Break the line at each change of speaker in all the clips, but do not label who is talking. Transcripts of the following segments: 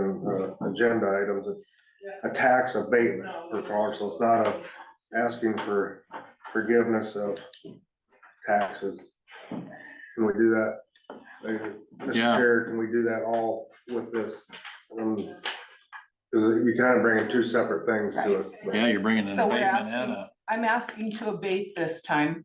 the uh, agenda items, it's a tax abatement for Clark, so it's not a asking for forgiveness of taxes. Can we do that? Uh, Mr.
Yeah.
Chair, can we do that all with this? Um, Cause you kind of bringing two separate things to us. but-
Yeah, you're bringing an
So we're
abatement and
asking-
a,
I'm asking to abate this time,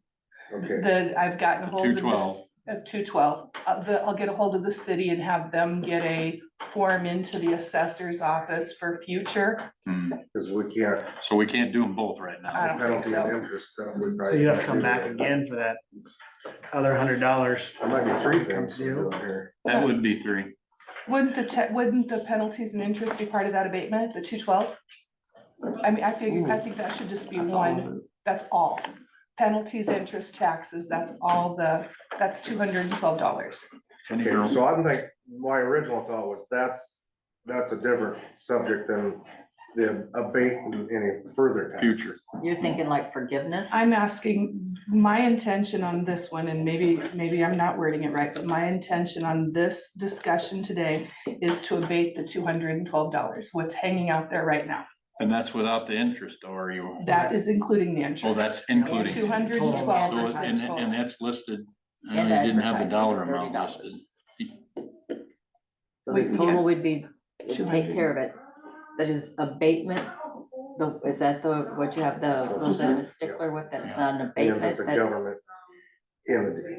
Okay,
the, I've gotten hold of this,
212.
of two twelve. Uh, the, I'll get a hold of the city and have them get a form into the assessor's office for future.
Hmm,
cause we can't,
so we can't do them both right
I
now.
don't think
penalty
so.
and interest stuff. we
So
probably
you have to
can't
come
do
back
that.
again for that other hundred dollars.
There might be three
Comes
things
to
we're
you.
doing here.
That would be three.
Wouldn't the, te- wouldn't the penalties and interest be part of that abatement, the two twelve? I mean, I think, I think that should just be one, that's all. Penalties, interest, taxes, that's all the, that's two hundred and twelve dollars.
Any girl-
Okay, so I'm like, my original thought was that's, that's a different subject than the abating any further. tax.
Future.
You're thinking like forgiveness?
I'm asking, my intention on this one, and maybe, maybe I'm not wording it right, but my intention on this discussion today is to abate the two hundred and twelve dollars, what's hanging out there right now.
And that's without the interest or you,
That is including the
oh, that's
interest.
including.
Two
So
hundred and twelve is
it-
the
And, and
total.
that's listed, I
And
didn't have the
advertising,
dollar amount
$30.
listed.
So the
We- yeah.
total would be,
Two
would take care of it, but is abatement, the, is that the, what you have the,
So
those
just
that I'm
a-
a stickler with, that's
Yeah.
not an
Because
abatement,
it's a
that's.
government entity.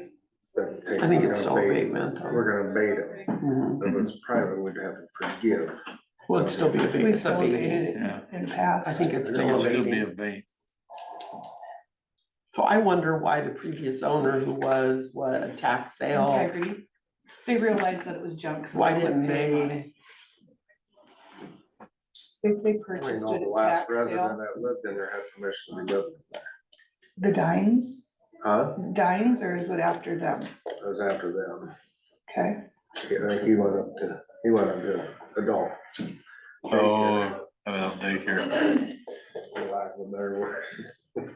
that takes-
I think it's still
we're gonna abate-
abatement.
We're gonna abate it.
Mhm.
If it's private, we'd have to forgive.
Well, it'd still be abatement.
We've
It's
still
abatement.
abated it
Yeah.
in the
I
past.
think it's still
It'll still be
abatement.
abate.
So I wonder why the previous owner who was, what, a tax sale,
Integrity. They realized that it was junk. so
why
wouldn't
didn't
pay them on it.
they?
They, they
I mean,
purchased
all
it
the
at
last
tax
resident
sale.
that lived in there had permission to live.
The Dines,
Huh?
Dines or is it after them?
It was after them.
Okay,
Yeah, I think he went up to, he went up to adult.
Oh, have an update here.
For lack of a better word.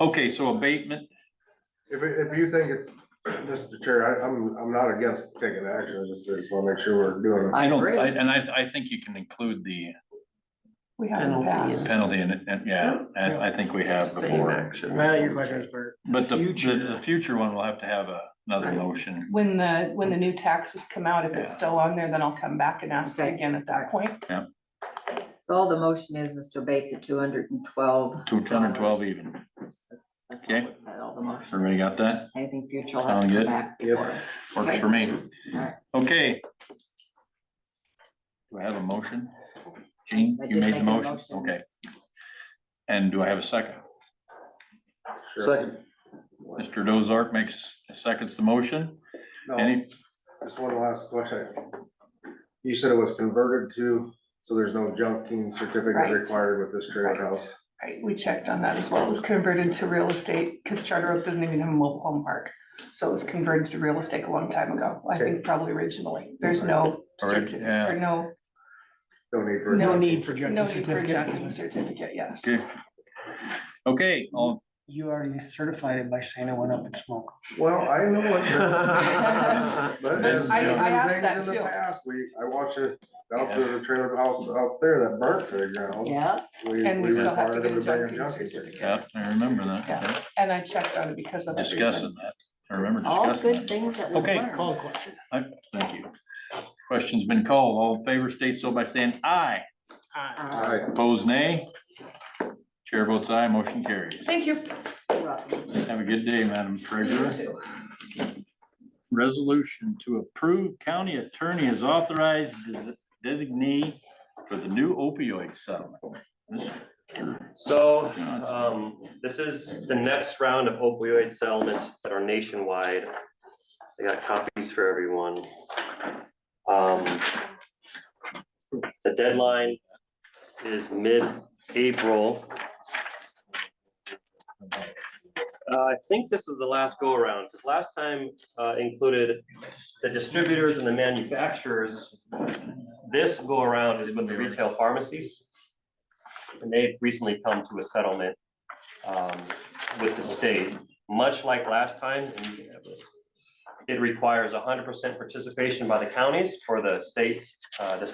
Okay, so abatement,
If, it- if you think it's, Mr. Chair, I, I'm, I'm not against taking action, I just, just wanna make sure we're doing it.
I don't,
Agree.
I- and I, I think you can include the
we have in the
Penalty.
past.
penalty and, and, yeah, I, I think we have
Same
before.
action.
Well, your question is for
But the,
Future.
the, the future one, we'll have to have a- another
Right.
motion.
When the, when the new taxes come out, if it's
Yeah.
still on there, then I'll come back and ask
Okay.
again at that point.
So all the motion is, is to abate the two hundred and twelve.
Two hundred and twelve even. Okay.
All the motion,
Everybody got that?
anything future will have
Sound
to
good?
come back before.
Works
Okay.
for me.
Alright.
Okay. Do I have a motion? Jean,
I
you
did
made
make
the
a
motion,
motion.
okay. And do I have a second?
Sure.
Mr. Dozark makes, seconds the motion.
No,
Any,
Just one last question. You said it was converted to, so there's no junking certificate
Right.
required with this trailer house?
Right, we checked on that as well. It was converted to real estate because Charter Oak doesn't even have a mobile home park. So it was converted to real estate a long time ago, I think probably originally. There's no
Alright,
certi-
yeah.
or no,
No need for. a
no
junking.
need for
no
junking
need for a judge's
certificate.
certificate, yes.
okay. Okay, all,
You already certified it by saying I went up and smoked.
Well, I know what. But as-
I- I
as
asked
things
that
in the
too.
past, We, I watched it out to the trailer house out there that burnt to the ground.
Yeah,
And we still have to
required
get a
them bring
junking
yeah,
certificate.
I remember that,
And I checked on it because of that reason.
discussing that, I remember
all
discussing
good
that.
things that we
Okay,
learned.
Call the question.
Thank you. Question's been called, all in favor state so by saying aye,
Uh,
Alright,
opposed nay. Chair votes aye, motion carries.
Thank you.
you're welcome.
Have a good day, Madam
You
Treasurer.
too.
Resolution to approve county attorney as authorized des- designee for the new opioid settlement. This-
So,
Gotcha.
um, this is the next round of opioid settlements that are nationwide. I got copies for everyone. Um, the deadline is mid-April. Uh, I think this is the last go-around, because last time, uh, included the distributors and the manufacturers. This go-around is with the retail pharmacies and they've recently come to a settlement um, with the state, much like last time, and you can have this. It requires hundred percent participation by the counties for the state, uh, the